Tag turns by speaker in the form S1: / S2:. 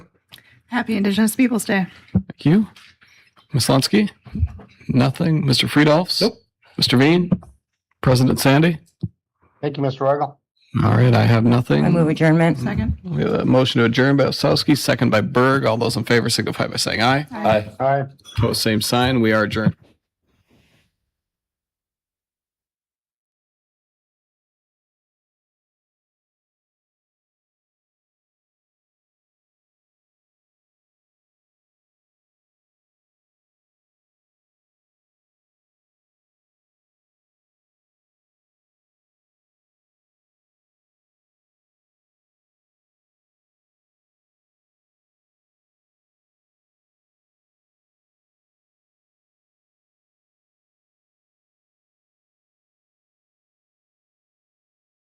S1: Happy Indigenous Peoples Day.
S2: Thank you. Ms. Lonsky? Nothing. Mr. Friedolfs?
S3: Nope.
S2: Mr. Veen? President Sandy?
S3: Thank you, Mr. Royal.
S2: All right, I have nothing.
S4: I move adjournment.
S1: Second.
S2: We have a motion to adjourn by Osowski, second by Berg. All those in favor signify by saying aye.
S1: Aye.
S3: Aye.
S2: Opposed, same sign. We are adjourned.